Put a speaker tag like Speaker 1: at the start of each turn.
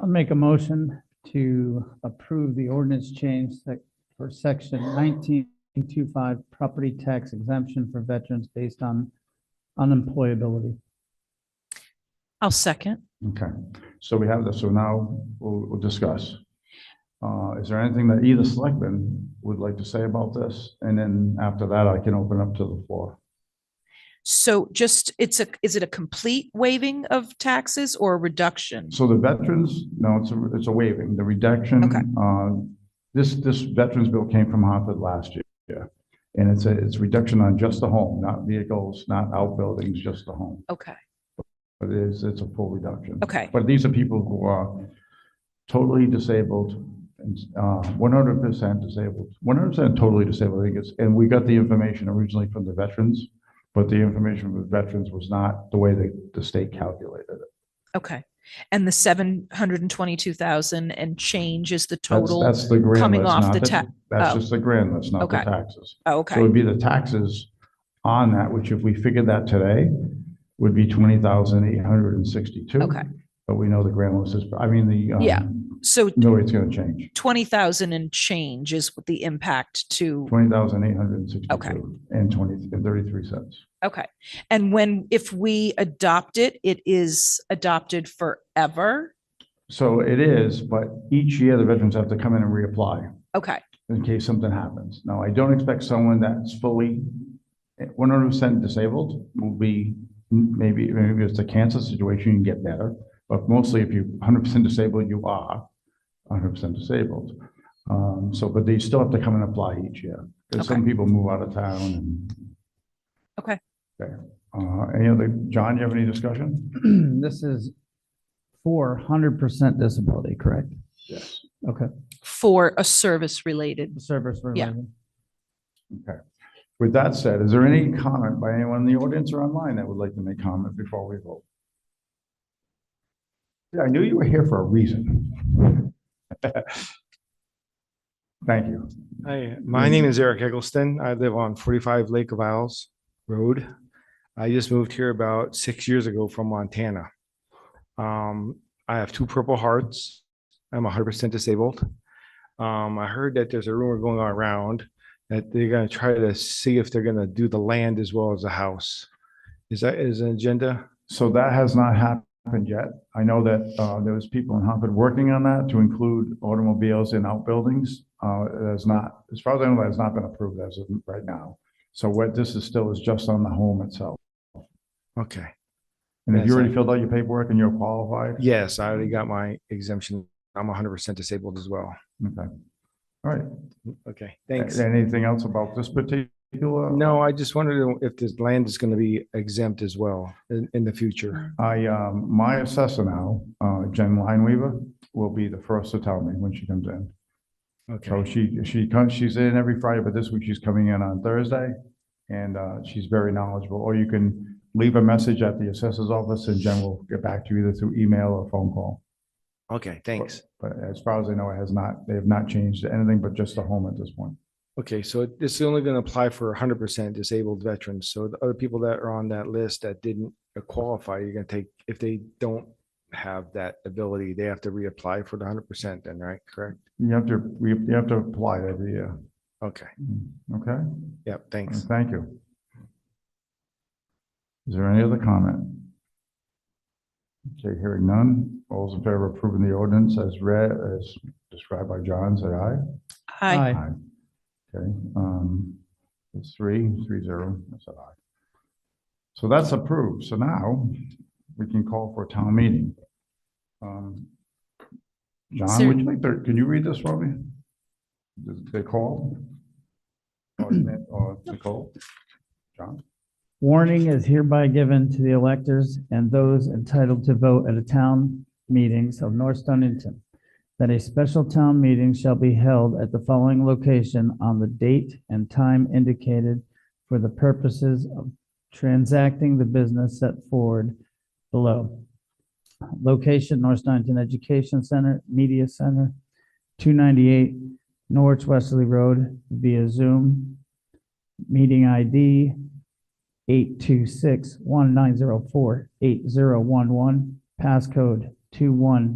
Speaker 1: I'll make a motion to approve the ordinance change sec- for section nineteen two-five property tax exemption for veterans based on unemployability.
Speaker 2: I'll second.
Speaker 3: Okay, so we have this, so now we'll, we'll discuss. Uh, is there anything that either selectman would like to say about this? And then after that, I can open up to the floor.
Speaker 2: So just, it's a, is it a complete waiving of taxes or a reduction?
Speaker 3: So the veterans, no, it's a, it's a waiving, the reduction.
Speaker 2: Okay.
Speaker 3: Uh, this, this veterans bill came from Hartford last year. And it's a, it's reduction on just the home, not vehicles, not outbuildings, just the home.
Speaker 2: Okay,
Speaker 3: But it's, it's a full reduction.
Speaker 2: okay,
Speaker 3: But these are people who are totally disabled, and uh, one hundred percent disabled, one hundred percent totally disabled, I think it's, and we got the information originally from the veterans, but the information from the veterans was not the way that the state calculated it.
Speaker 2: okay. And the seven hundred and twenty-two thousand and change is the
Speaker 3: That's-
Speaker 2: total?
Speaker 3: That's the grand
Speaker 2: coming
Speaker 3: list,
Speaker 2: off
Speaker 3: not
Speaker 2: the
Speaker 3: the-
Speaker 2: ta-
Speaker 3: That's
Speaker 2: oh.
Speaker 3: just the grand list, not the
Speaker 2: Okay.
Speaker 3: taxes.
Speaker 2: Oh,
Speaker 3: So it
Speaker 2: Okay,
Speaker 3: would be the taxes on that, which if we figured that today, would be twenty thousand eight hundred and sixty-two.
Speaker 2: Okay.
Speaker 3: But we know the grand list is, I mean, the. um,
Speaker 2: Yeah. so
Speaker 3: No, it's gonna change.
Speaker 2: twenty thousand and change is what the impact to,
Speaker 3: Twenty thousand eight hundred and
Speaker 2: Okay.
Speaker 3: sixty-two and twenty, and thirty-three cents.
Speaker 2: okay. And when, if we adopt it, it is adopted forever?
Speaker 3: So it is, but each year the veterans have to come in and reapply
Speaker 2: Okay,
Speaker 3: in case something happens. Now, I don't expect someone that's fully one hundred percent disabled will be, maybe, maybe it's a cancer situation, you can get better. But mostly if you're hundred percent disabled, you are hundred percent disabled. Um, so, but they still have to come and apply each year. Because some people move out of town and.
Speaker 2: Okay.
Speaker 3: Okay. Uh, any other, John, you have any discussion?
Speaker 1: This is for hundred percent disability, correct?
Speaker 3: Yes.
Speaker 1: Okay,
Speaker 2: for a service-related,
Speaker 1: service related.
Speaker 3: With that said, is there any comment by anyone in the audience or online that would like to make comment before we vote? Yeah, I knew you were here for a reason. Thank you.
Speaker 4: Hi, my name is Eric Eggleston. I live on forty-five Lake of Isles Road. I just moved here about six years ago from Montana. Um, I have two Purple Hearts. I'm hundred percent disabled. Um, I heard that there's a rumor going on around that they're gonna try to see if they're gonna do the land as well as the house. Is that is an agenda?
Speaker 3: So that has not happened yet. I know that uh, there was people in Hartford working on that to include automobiles in outbuildings. Uh, It has not, as far as I know, that has not been approved as of right now. So what this is still is just on the home itself.
Speaker 4: Okay,
Speaker 3: And if you
Speaker 4: Yes,
Speaker 3: already
Speaker 4: I-
Speaker 3: filled out your paperwork and you're qualified,
Speaker 4: yes, I already got my exemption. I'm hundred percent disabled as well.
Speaker 3: okay. All right.
Speaker 4: Okay, thanks.
Speaker 3: Anything else about this particular?
Speaker 4: No, I just wondered if this land is going to be exempt as well in, in the future.
Speaker 3: I, um, my assessor now, uh, Jen Lineweaver, will be the first to tell me when she comes in. So
Speaker 4: Okay,
Speaker 3: she, she comes, she's in every Friday, but this week she's coming in on Thursday. And, uh, she's very knowledgeable, or you can leave a message at the assessor's office and Jen will get back to you either through email or phone call.
Speaker 4: Oh, okay, thanks.
Speaker 3: But as far as I know, it has not, they have not changed anything but just the home at this point.
Speaker 4: Okay, so this is only going to apply for hundred percent disabled veterans. So the other people that are on that list that didn't qualify, you're going to take, if they don't have that ability, they have to reapply for the hundred percent then, right? Correct?
Speaker 3: You have to, we- you have to apply it every year. Mm,
Speaker 4: Okay,
Speaker 3: Okay?
Speaker 4: yep, thanks.
Speaker 3: Thank you. Is there any other comment? Okay, hearing none. All those in favor of approving the ordinance as read, as described by John, say aye.
Speaker 2: I,
Speaker 1: Aye.
Speaker 3: Okay, um, it's three, three zero, I said aye. So that's approved. So now we can call for a town meeting. Um, John,
Speaker 2: Sir.
Speaker 3: would you like to, can you read this for me? The- The call? Or or Nicole? John?
Speaker 1: Warning is hereby given to the electors and those entitled to vote at a town meetings of North Stonington that a special town meeting shall be held at the following location on the date and time indicated for the purposes of transacting the business set forward below. Location, North Stonington Education Center, Media Center, 298 Norwich Wesley Road via Zoom. Meeting ID 826-1904-8011, passcode 21